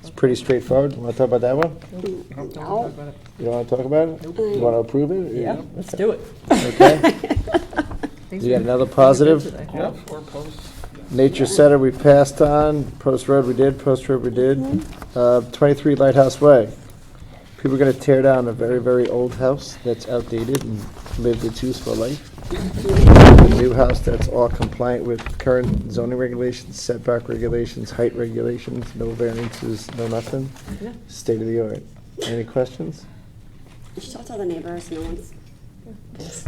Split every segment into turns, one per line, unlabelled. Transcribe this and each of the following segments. It's pretty straightforward. You want to talk about that one?
No.
You don't want to talk about it? You want to approve it?
Yeah, let's do it.
Okay. You got another positive?
Yeah.
Nature Center, we passed on. Post Road, we did. Post Road, we did.
Mm-hmm.
Uh, 23 Lighthouse Way. People are going to tear down a very, very old house that's outdated and lived its useful life. New house that's all compliant with current zoning regulations, setback regulations, height regulations, no variances, no nothing.
Yeah.
State of the art. Any questions?
You should talk to all the neighbors, no one's,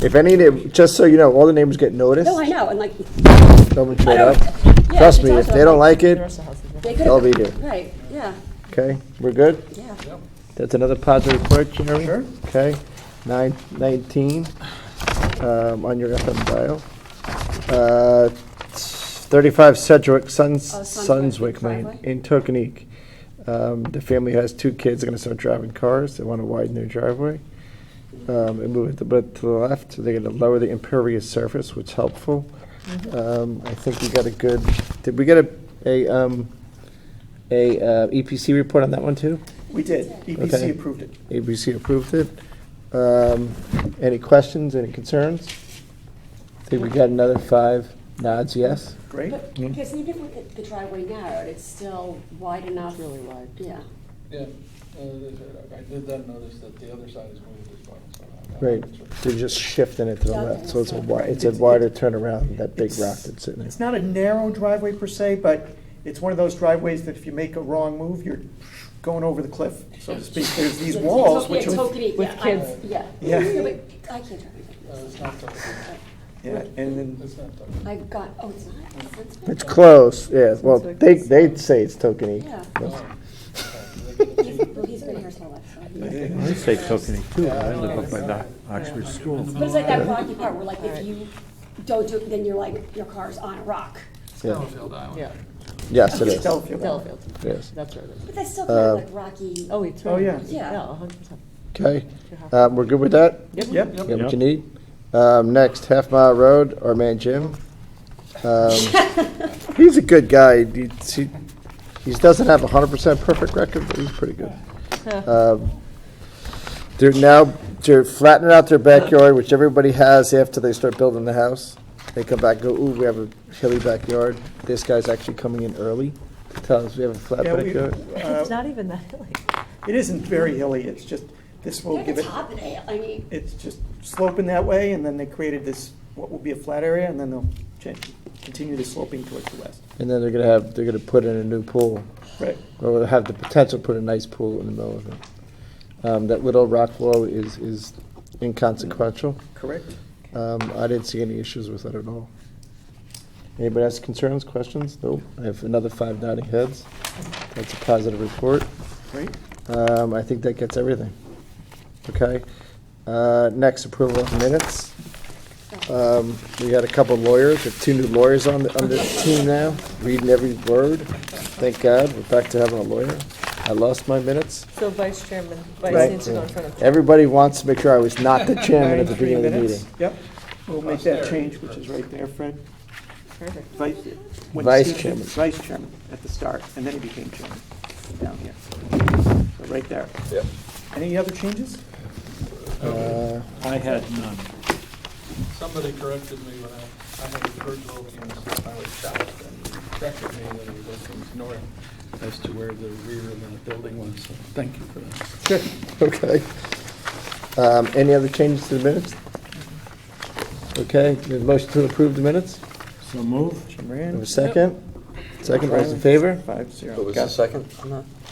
If any, na- just so you know, all the neighbors get noticed.
no, I know, and like,
Someone showed
I
up.
don't- yeah,
Trust me, if
it's also
they don't like
The
it,
rest of the house is-
they could
they'll
have,
be there.
right, yeah,
Okay, we're good?
yeah.
That's another positive report, Jeremy? Sure. Okay, nine nineteen, um, on your FM dial. Uh, Thirty-five Sedgwick, Suns,
Oh, Sunswick
Sunswick Lane,
driveway?
in Tokenique. Um, the family has two kids, they're gonna start driving cars, they wanna widen their driveway. Um, and move it a bit to the left, they're gonna lower the impervious surface, which is helpful. Um, I think we got a good, did we get a, a, um, a, uh, EPC report on that one too?
We did.
Okay.
EPC approved it.
ABC approved it. Um, Any questions, any concerns? I think we got another five nods, yes?
Great.
But, because even if with the- the driveway narrowed, it's still wide enough. Really wide. Yeah.
Yeah, uh, I did then notice that the other side is moved as well, so. I- I-
Right, they're just shifting it to the left, so it's a wi, it's a wider turnaround, than that big rock that's sitting
It's
there.
not a narrow driveway per se, but it's one of those driveways that if you make a wrong move, you're going over the cliff, so to speak. There's these
Yeah,
walls,
totally-
which
yeah,
are,
totally,
with
yeah, I-
kids.
Yeah.
Yeah.
but I can't drive.
No, Uh, it's not tough,
yeah, and then,
it's not tough.
I got, oh, it's not, it's not.
It's close, yeah, well, they, they'd say it's Tokenie.
Yeah.
Oh, okay. They get a Jeep.
Well, he's been here his whole life, so. I don't know.
I say Tokenie too, I live up by the Oxford School.
But it's like that rocky part where like if you don't do it, then you're like, your car's on a rock.
Yeah.
Yeah,
Yes, it is,
Delfield.
Delafield,
yes.
that's where it is.
But that's still kind of
Uh,
like rocky.
Oh, it's right.
Oh, yeah.
Yeah.
Yeah, a hundred percent.
Okay, um, we're good with that?
Yep.
You got what you need? Um, next, Half Mile Road, our man Jim. Um, he's a good guy. He, he, he doesn't have a hundred percent perfect record, but he's pretty good. Um, they're now, they're flattening out their backyard, which everybody has after they start building the house. They come back, and go, ooh, we have a hilly backyard. This guy's actually coming in early to tell us we have a flat
Yeah, we-
backyard.
uh,
It's not even that hilly.
It isn't very hilly, it's just, this will
They're at
give
the
it,
top of the hill, I mean,
it's just sloping that way, and then they created this, what will be a flat area, and then they'll change, continue the sloping towards the west.
And then they're gonna have, they're gonna put in a new pool.
Right.
or have the potential to put a nice pool in the middle of it. Um, that little rock wall is, is inconsequential.
Correct?
Um, I didn't see any issues with it at all. Anybody has concerns, questions? Nope. I have another five nodding heads. That's a positive report.
Great.
Um, I think that gets everything. Okay. Uh, next, approval of minutes.
oh.
Um, we had a couple lawyers, we have two new lawyers on, the- on this team now, reading every word. Thank God, we're back to having a lawyer. I lost my minutes.
So Vice Chairman, Vice
Right.
needs to go in front of.
Everybody wants to make sure I was not the chairman at the
93
beginning of the
minutes.
meeting.
Yep, we'll make that change, which is right there, Fred.
Perfect.
Vice. when
Vice
Steve was
chairman.
Vice chairman at the start, and then he became chairman, down here. So right there. Yep. Any other changes?
Uh,
I had none.
Somebody corrected me when I, I had the bird over here, so I was shocked, and he corrected me that he was from north as to where the rear of the building was, so thank you for that.
Uh, Okay. Um, any other changes to the minutes? Okay, the motion to approve the minutes?
So move.
Jim
Have a
Moran,
second? Second, all those in favor?
five zero.
What was
Got
the second?
it.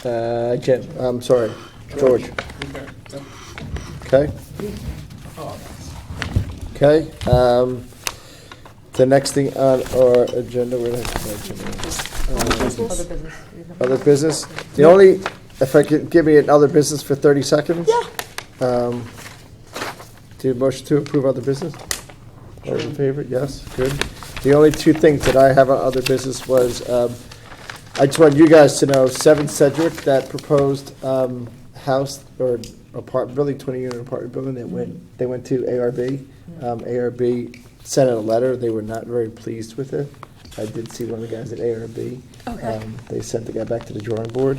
Uh, Jim, I'm sorry, George,
Okay,
okay?
yep. Oh,
Okay, um, the next thing on our agenda, where did I put my agenda?
Other business.
Other business, the only, if I could, give me an other business for thirty seconds? Yeah. Um, do you motion to approve other business? All those in favor, yes, good. The only two things that I have on other business was, um, I just want you guys to know, Seven Cedric, that proposed um, house or apartment building, 20-unit apartment building, that went, they went to ARB. Um, ARB sent out a letter, they were not very pleased with it. I did see one of the guys at ARB.
Okay.
Um, They sent the guy back to the drawing board.